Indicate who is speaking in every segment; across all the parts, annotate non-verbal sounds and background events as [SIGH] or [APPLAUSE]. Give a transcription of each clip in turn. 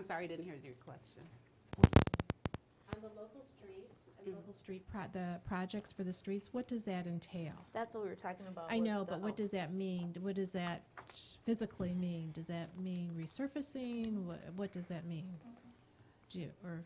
Speaker 1: sorry, I didn't hear your question.
Speaker 2: On the local streets and local street pro, the projects for the streets, what does that entail?
Speaker 3: That's what we were talking about.
Speaker 2: I
Speaker 3: with
Speaker 2: know,
Speaker 3: the-
Speaker 2: but Uh, what
Speaker 3: oh,
Speaker 2: does that mean? What does that physically mean? Does that mean resurfacing? What, what does that mean? Do you, or,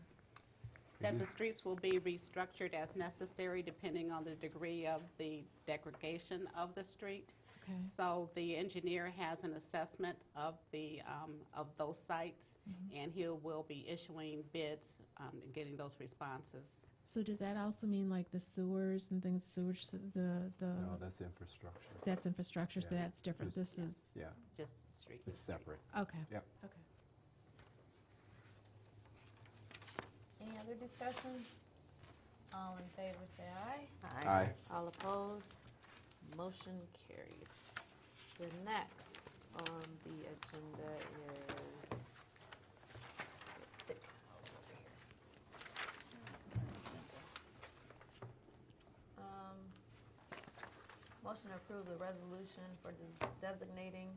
Speaker 1: That the streets will be restructured as necessary depending on the degree of the degradation of the street.
Speaker 2: okay,
Speaker 1: So the engineer has an assessment of the, um, of those sites, and he will be issuing bids um, and getting those responses.
Speaker 2: so does that also mean like the sewers and things, sewage, s- the,
Speaker 4: No,
Speaker 2: the,
Speaker 4: that's infrastructure.
Speaker 2: that's infrastructure, so
Speaker 4: Yeah.
Speaker 2: that's different. This is,
Speaker 4: Yeah,
Speaker 1: Just the street.
Speaker 4: it's separate.
Speaker 2: okay.
Speaker 4: Yep.
Speaker 2: Okay.
Speaker 3: Any other discussion? All in favor, say aye.
Speaker 4: Aye.
Speaker 3: All opposed, motion carries. The next on the agenda is, this is a thick file over here. Um, Motion to approve the resolution for des- designating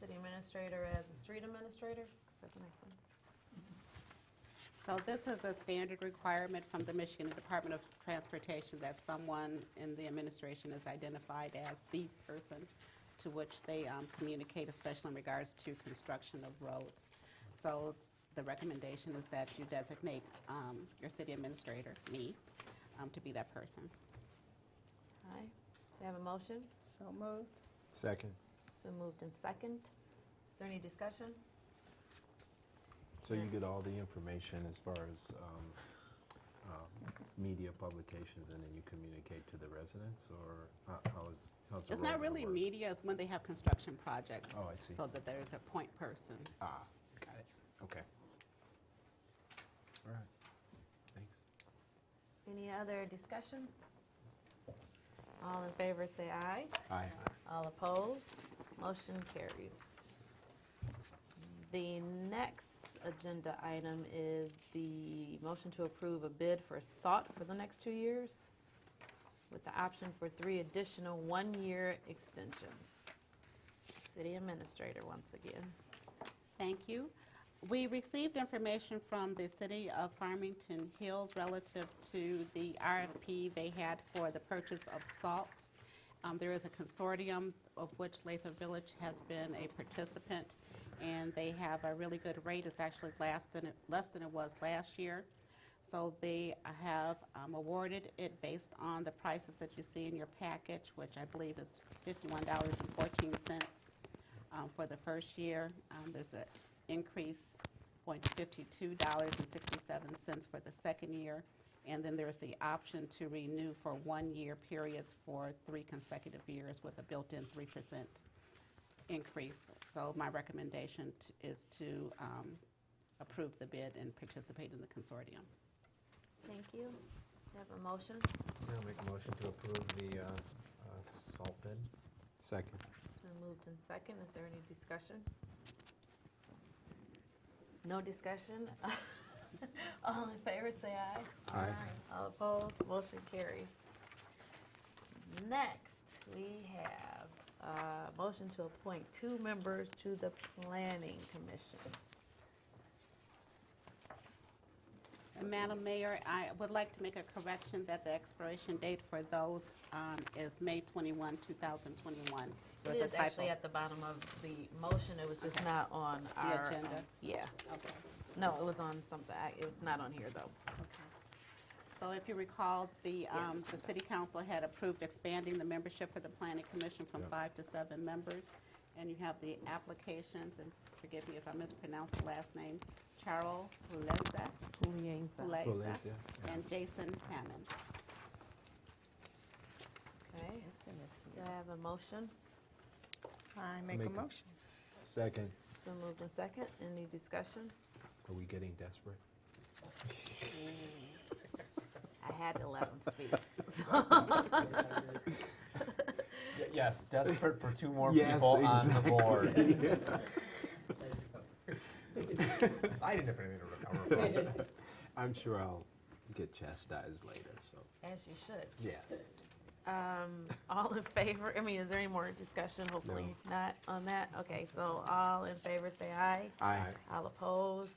Speaker 3: city administrator as a street administrator. Is that the next one?
Speaker 1: So this is a standard requirement from the Michigan Department of Transportation that someone in the administration is identified as the person to which they um, communicate, especially in regards to construction of roads. So the recommendation is that you designate um, your city administrator, me, um, to be that person.
Speaker 3: Aye. Do you have a motion?
Speaker 5: So moved.
Speaker 4: Second.
Speaker 3: Been moved in second. Is there any discussion?
Speaker 4: So you get all the information as far as um, uh, media publications, and then you communicate to the residents, or how- how is, how's the
Speaker 1: It's
Speaker 4: role
Speaker 1: not
Speaker 4: gonna
Speaker 1: really
Speaker 4: work?
Speaker 1: media, it's when they have construction projects.
Speaker 4: Oh, I see.
Speaker 1: So that there's a point person.
Speaker 4: Ah, got it. Okay. All right. Thanks.
Speaker 3: Any other discussion? All in favor, say aye.
Speaker 4: Aye.
Speaker 3: All opposed, motion carries. The next agenda item is the motion to approve a bid for SALT for the next two years with the option for three additional one-year extensions. City Administrator, once again.
Speaker 1: Thank you. We received information from the city of Farmington Hills relative to the RFP they had for the purchase of salt. Um, There is a consortium of which Latham Village has been a participant, and they have a really good rate. It's actually less than, less than it was last year. So they have um, awarded it based on the prices that you see in your package, which I believe is $51.14 um, for the first year. Um, There's an increase, $0.5267 for the second year, and then there's the option to renew for one-year periods for three consecutive years with a built-in 3% increase. So my recommendation t- is to um, approve the bid and participate in the consortium.
Speaker 3: Thank you. Do you have a motion?
Speaker 6: I'll make a motion to approve the uh, uh, salt bid.
Speaker 4: Second.
Speaker 3: It's been moved in second. Is there any discussion? No discussion? [LAUGHS] All in favor, say aye.
Speaker 4: Aye.
Speaker 3: All opposed, motion carries. Next, we have a motion to appoint two members to the Planning Commission.
Speaker 1: And Madam Mayor, I would like to make a correction that the expiration date for those um, is May 21, 2021. There
Speaker 3: It
Speaker 1: was a
Speaker 3: is actually
Speaker 1: typo.
Speaker 3: at the bottom of the motion. It was just not on our. um,
Speaker 1: agenda.
Speaker 3: Yeah.
Speaker 1: Okay.
Speaker 3: No, it was on something. I- It was not on here, though.
Speaker 1: Okay. So if you recall, the, um, the city council had approved expanding the membership for the planning commission from five to seven members. And you have the applications, and forgive me if I mispronounce the last name, Charles Huleza.
Speaker 4: Huleza,
Speaker 1: Huleza.
Speaker 4: yeah.
Speaker 1: And Jason Hammond.
Speaker 3: Okay. Do I have a motion?
Speaker 5: I make a
Speaker 4: Make a-
Speaker 5: motion.
Speaker 4: Second.
Speaker 3: It's been moved in second. Any discussion?
Speaker 4: Are we getting desperate?
Speaker 3: I had to let him speak.
Speaker 6: Yes, desperate for two more
Speaker 4: Yes,
Speaker 6: people on the board.
Speaker 4: [LAUGHS]
Speaker 6: I didn't have anything to recover from.
Speaker 4: I'm sure I'll get chastised later, so,
Speaker 3: As you should.
Speaker 4: yes.
Speaker 3: Um, all in favor, I mean, is there any more discussion? Hopefully not on that. Okay, so all in favor, say aye.
Speaker 4: Aye.
Speaker 3: All opposed?